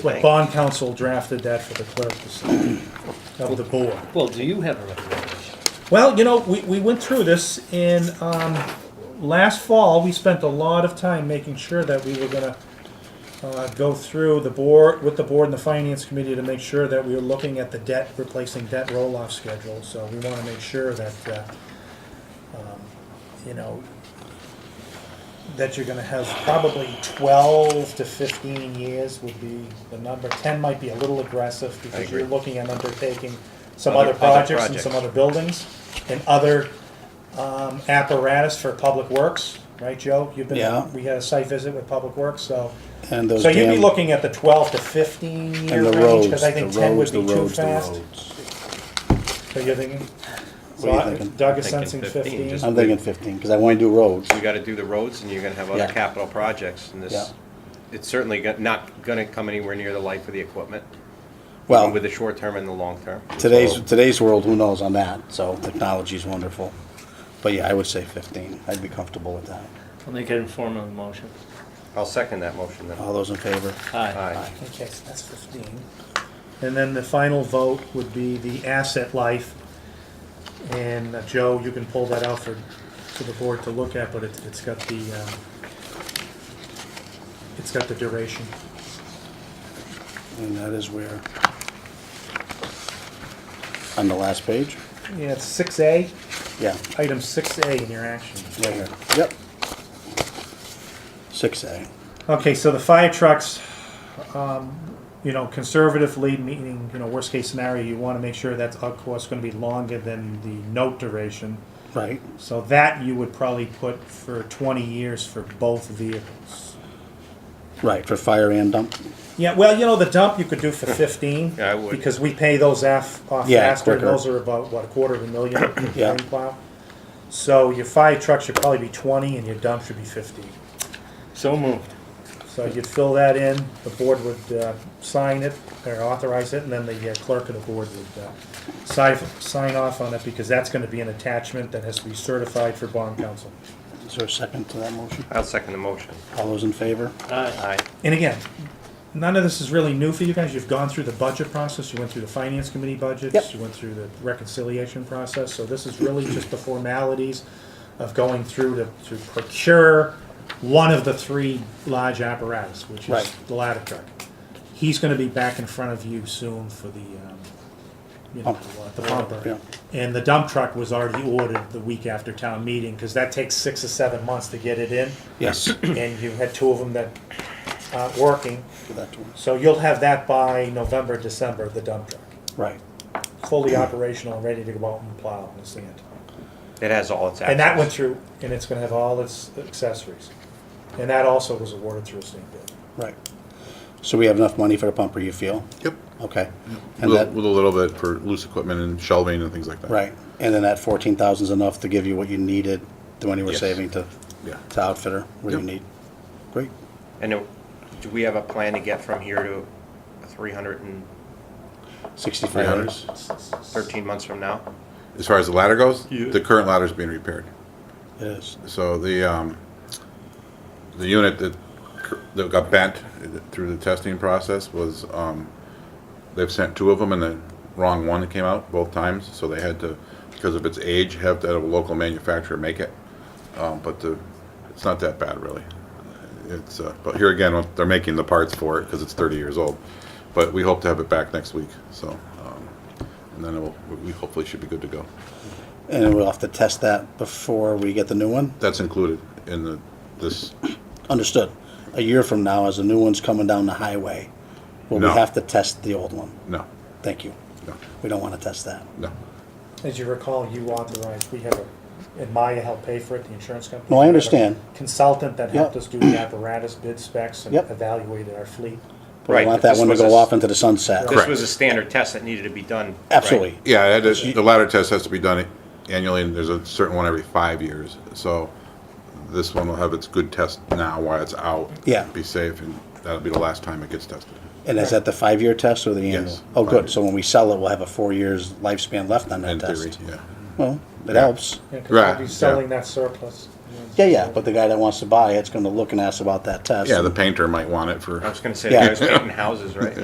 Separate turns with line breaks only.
swing.
bond counsel drafted that for the clerk to sign, of the board.
Well, do you have a recommendation?
Well, you know, we, we went through this in, um, last fall, we spent a lot of time making sure that we were gonna uh, go through the board, with the board and the finance committee to make sure that we were looking at the debt, replacing debt roll-off schedule, so we wanna make sure that, uh, um, you know, that you're gonna have probably twelve to fifteen years would be the number, ten might be a little aggressive, because you're
agree.
looking at undertaking some
Other-
other
other
projects and some
projects.
other buildings, and other um, apparatus for public works, right, Joe? You've
Yeah.
been, we had a site visit with public works, so,
And those
so you'd be
damn-
looking at the twelve to fifteen year
and the
range,
roads,
because I
the
think ten would
roads, the
be too
roads, the
fast.
roads.
So you're thinking, so
What are you
I-
thinking?
Doug is
I'm thinking
sensing
15,
fifteen,
just-
I'm thinking fifteen, because I want to do roads.
You gotta do the roads and you're gonna have other
Yeah.
capital projects and this, it's certainly go- not gonna come anywhere near the life of the equipment.
Well,
With the short term and the long term.
today's,
So,
today's world, who knows on that, so technology's wonderful. But yeah, I would say fifteen, I'd be comfortable with that.
I'll make an informal motion.
I'll second that motion then.
All those in favor?
Aye.
Aye.
okay, so that's fifteen. And then the final vote would be the asset life, and uh, Joe, you can pull that out for, for the board to look at, but it's, it's got the, um, it's got the duration.
And that is where? On the last page?
Yeah, it's six A,
Yeah,
item six A in your action.
right here, yep. Six A,
Okay, so the fire trucks, um, you know, conservatively, meaning, you know, worst case scenario, you wanna make sure that's, of course, gonna be longer than the note duration.
right,
So that you would probably put for twenty years for both vehicles.
right, for fire and dump,
Yeah, well, you know, the dump you could do for fifteen.
Yeah, I would.
Because we pay those af, off
Yeah,
faster, and
quicker.
those are about, what, a quarter of a million?
Yeah.
in plow. So your fire truck should probably be twenty, and your dump should be fifty.
So moved.
So you'd fill that in, the board would uh, sign it, or authorize it, and then the uh, clerk of the board would uh, sign, sign off on it, because that's gonna be an attachment that has to be certified for bond counsel.
is there a second to that motion?
I'll second the motion.
All those in favor?
Aye.
Aye.
And again, none of this is really new for you guys, you've gone through the budget process, you went through the finance committee budgets,
Yep.
you went through the reconciliation process, so this is really just the formalities of going through to, to procure one of the three large apparatus, which is
Right.
the ladder truck. He's gonna be back in front of you soon for the, um, you know,
Pump.
the bumper.
Yeah.
And the dump truck was already ordered the week after town meeting, cause that takes six or seven months to get it in
Yes.
and you had two of them that aren't working.
For that one.
So you'll have that by November, December, the dump truck,
Right,
fully
Hmm.
operational and ready to go out and plow and sand.
It has all its.
And that
assets.
went through, and it's gonna have all its accessories. And that also was awarded through a state bid.
right. So we have enough money for the pumper, you feel?
Yep.
Okay. And
With a,
that,
with a little bit for loose equipment and shelving and things like that.
right, and then that fourteen thousand's enough to give you what you needed, the money we're
Yes.
saving to,
Yeah.
to outfitter, what you
Yep.
need. Great.
And it- do we have a plan to get from here to three hundred and
Sixty-five
hundred.
hours.
thirteen months from now?
As far as the ladder goes,
Yeah.
the current ladder's being repaired.
It is.
So the, um, the unit that, cur- that got bent through the testing process was, um, they've sent two of them and the wrong one came out both times, so they had to, because of its age, have to have a local manufacturer make it. Um, but the, it's not that bad really. It's, uh, but here again, they're making the parts for it because it's thirty years old. But we hope to have it back next week, so, um, and then it will, we hopefully should be good to go.
And we'll have to test that before we get the new one?
That's included in the, this
Understood. A year from now, as the new one's coming down the highway, will we
No.
have to test the old one?
No,
Thank you.
no,
We don't wanna test that.
no.
As you recall, you authorized, we have a, and Maya helped pay for it, the insurance company.
No, I
We have a
understand.
Consultant that helped
Yep.
us do the apparatus bid specs and
Yep.
evaluated our fleet.
But we
Right,
want
but
that
this
one to
was a
go
s-
off into the sunset.
This
Correct.
was a standard test that needed to be done. right?
Absolutely.
Yeah, it is- the ladder test has to be done annually, and there's a certain one every five years. So this one will have its good test now while it's out.
Yeah.
Be safe, and that'll be the last time it gets tested.
And is that the five-year test or the annual?
Yes,
Oh,
five
good.
years.
So when we sell it, we'll have a four years lifespan left on that
In theory,
test.
yeah.
Well, it helps.
Yeah, 'cause we'll
Right,
be
yeah.
selling that surplus.
Yeah, yeah, but the guy that wants to buy it's gonna look and ask about that test.
Yeah, the painter might want it for.
I was gonna say,
Yeah.
I was painting houses, right?